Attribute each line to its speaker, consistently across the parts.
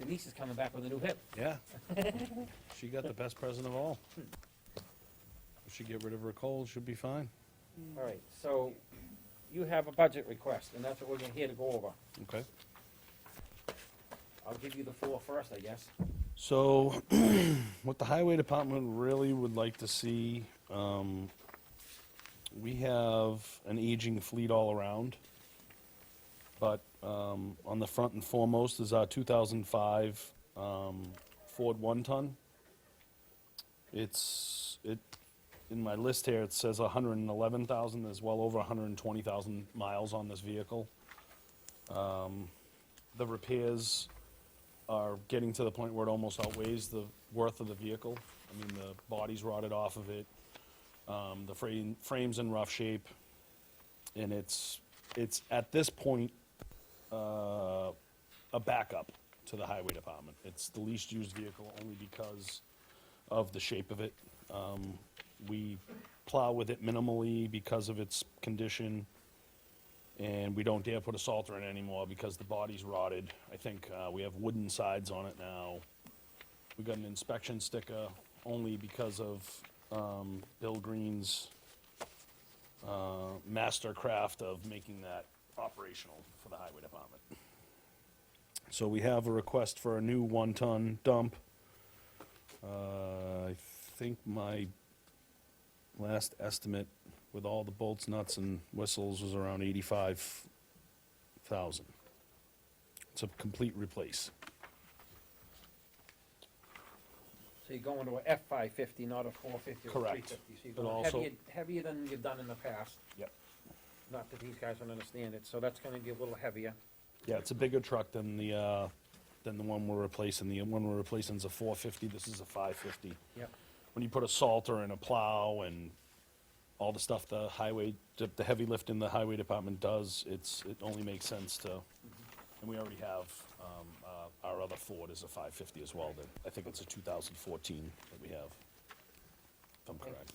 Speaker 1: Denise is coming back with a new hip.
Speaker 2: Yeah. She got the best present of all. If she get rid of her cold, she'll be fine.
Speaker 1: All right, so you have a budget request, and that's what we're gonna here to go over.
Speaker 2: Okay.
Speaker 1: I'll give you the floor first, I guess.
Speaker 2: So, what the highway department really would like to see, um, we have an aging fleet all around. But, um, on the front and foremost is our two thousand five, um, Ford one-ton. It's, it, in my list here, it says hundred and eleven thousand, there's well over hundred and twenty thousand miles on this vehicle. Um, The repairs are getting to the point where it almost outweighs the worth of the vehicle. I mean, the body's rotted off of it, um, the frame, frame's in rough shape, and it's, it's at this point, uh, a backup to the highway department. It's the least used vehicle only because of the shape of it. Um, we plow with it minimally because of its condition and we don't dare put a salter in it anymore because the body's rotted. I think uh, we have wooden sides on it now. We got an inspection sticker only because of um, Bill Green's uh, mastercraft of making that operational for the highway department. So we have a request for a new one-ton dump. Uh, I think my last estimate with all the bolts, nuts, and whistles was around eighty-five thousand. It's a complete replace.
Speaker 1: So you're going to a F five fifty, not a four fifty or three
Speaker 2: Correct.
Speaker 1: fifty. So you're
Speaker 2: But
Speaker 1: going
Speaker 2: also-
Speaker 1: heavier, heavier than you've done in the past.
Speaker 2: Yep.
Speaker 1: Not that these guys don't understand it, so that's gonna be a little heavier.
Speaker 2: Yeah, it's a bigger truck than the, uh, than the one we're replacing. The one we're replacing is a four fifty, this is a five fifty.
Speaker 1: Yep.
Speaker 2: When you put a salter and a plow and all the stuff the highway, the the heavy lift in the highway department does, it's, it only makes sense to, and we already have, um, uh, our other Ford is a five fifty as well, that, I think it's a two thousand fourteen that we have. If I'm
Speaker 1: Okay.
Speaker 2: correct.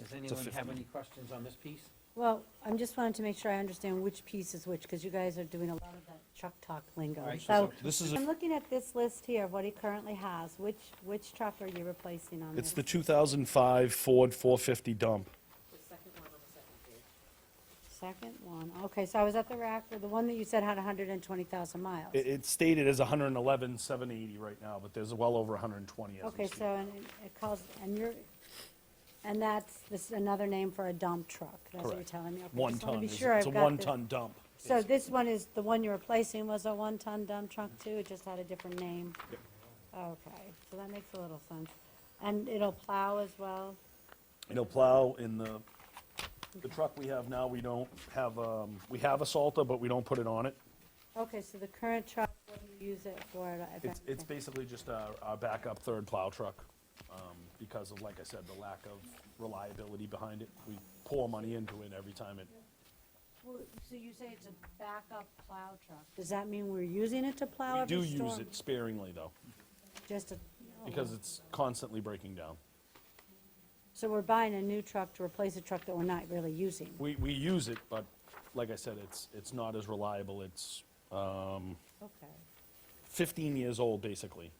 Speaker 1: Does anyone have
Speaker 2: 15.
Speaker 1: any questions on this piece?
Speaker 3: Well, I'm just wanting to make sure I understand which piece is which, because you guys are doing a lot of that truck talk lingo.
Speaker 1: Alright,
Speaker 3: So,
Speaker 2: This is, a-
Speaker 3: I'm looking at this list here of what he currently has, which, which truck are you replacing on this?
Speaker 2: it's the two thousand five Ford four fifty dump.
Speaker 4: The second one on the second page.
Speaker 3: Second one, okay, so I was at the rack, with the one that you said had hundred and twenty thousand miles.
Speaker 2: It, it's stated as hundred and eleven, seven eighty right now, but there's well over hundred and twenty as we
Speaker 3: Okay,
Speaker 2: speak.
Speaker 3: so, and it- it calls, and you're, and that's, this is another name for a dump truck, that's what you're
Speaker 2: Correct.
Speaker 3: telling me? Okay,
Speaker 2: One
Speaker 3: just wanna
Speaker 2: ton,
Speaker 3: be
Speaker 2: is-
Speaker 3: sure
Speaker 2: it's a
Speaker 3: I've got
Speaker 2: one
Speaker 3: this.
Speaker 2: ton dump.
Speaker 3: So this one is, the one you're replacing was a one-ton dump truck too, it just had a different name? Okay, so that makes a little sense. And it'll plow as well?
Speaker 2: It'll plow in the, the truck we have now, we don't have, um, we have a Salter, but we don't put it on it.
Speaker 3: Okay, so the current truck, what do you use it for?
Speaker 2: It's,
Speaker 3: if
Speaker 2: it's
Speaker 3: anything?
Speaker 2: basically just our, our backup third plow truck, um, because of, like I said, the lack of reliability behind it. We pour money into it every time it,
Speaker 3: Well, So you say it's a backup plow truck? Does that mean we're using it to plow
Speaker 2: we
Speaker 3: every
Speaker 2: do
Speaker 3: storm?
Speaker 2: use it sparingly though,
Speaker 3: Just a,
Speaker 2: because it's constantly breaking down.
Speaker 3: so we're buying a new truck to replace a truck that we're not really using?
Speaker 2: We, we use it, but like I said, it's, it's not as reliable. It's
Speaker 3: Okay.
Speaker 2: 15 years old, basically.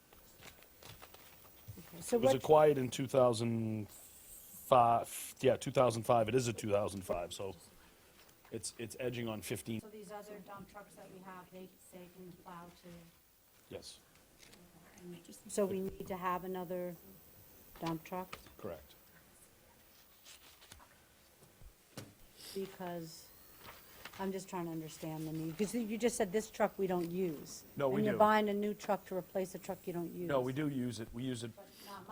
Speaker 3: okay. So
Speaker 2: It was
Speaker 3: what,
Speaker 2: acquired in 2005, yeah, 2005. It is a 2005, so it's, it's edging on 15,
Speaker 3: so these other dump trucks that we have, they, they can plow too?
Speaker 2: yes,
Speaker 3: So we need to have another dump truck
Speaker 2: correct.
Speaker 3: because, I'm just trying to understand the need, because you just said this truck we don't use.
Speaker 2: No, we
Speaker 3: And
Speaker 2: do.
Speaker 3: you're buying a new truck to replace a truck you don't use.
Speaker 2: No, we do use it, we use it,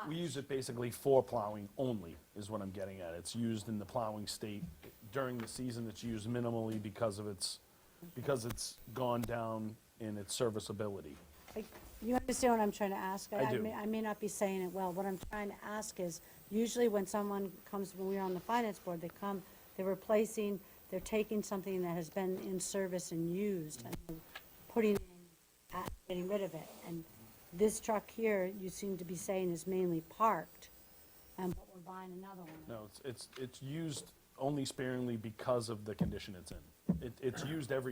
Speaker 2: we use it basically for plowing only, is what I'm getting at. It's used in the plowing state. During the season, it's used minimally because of its, because it's gone down in its serviceability.
Speaker 3: Like, You understand what I'm trying to ask?
Speaker 2: I do.
Speaker 3: may- I may not be saying it well. What I'm trying to ask is, usually when someone comes, when we're on the finance board, they come, they're replacing, they're taking something that has been in service and used and they're putting, it in, uh, getting rid of it. And this truck here, you seem to be saying is mainly parked, and but we're buying another one.
Speaker 2: No, it's, it's, it's used only sparingly because of the condition it's in. It, it's used every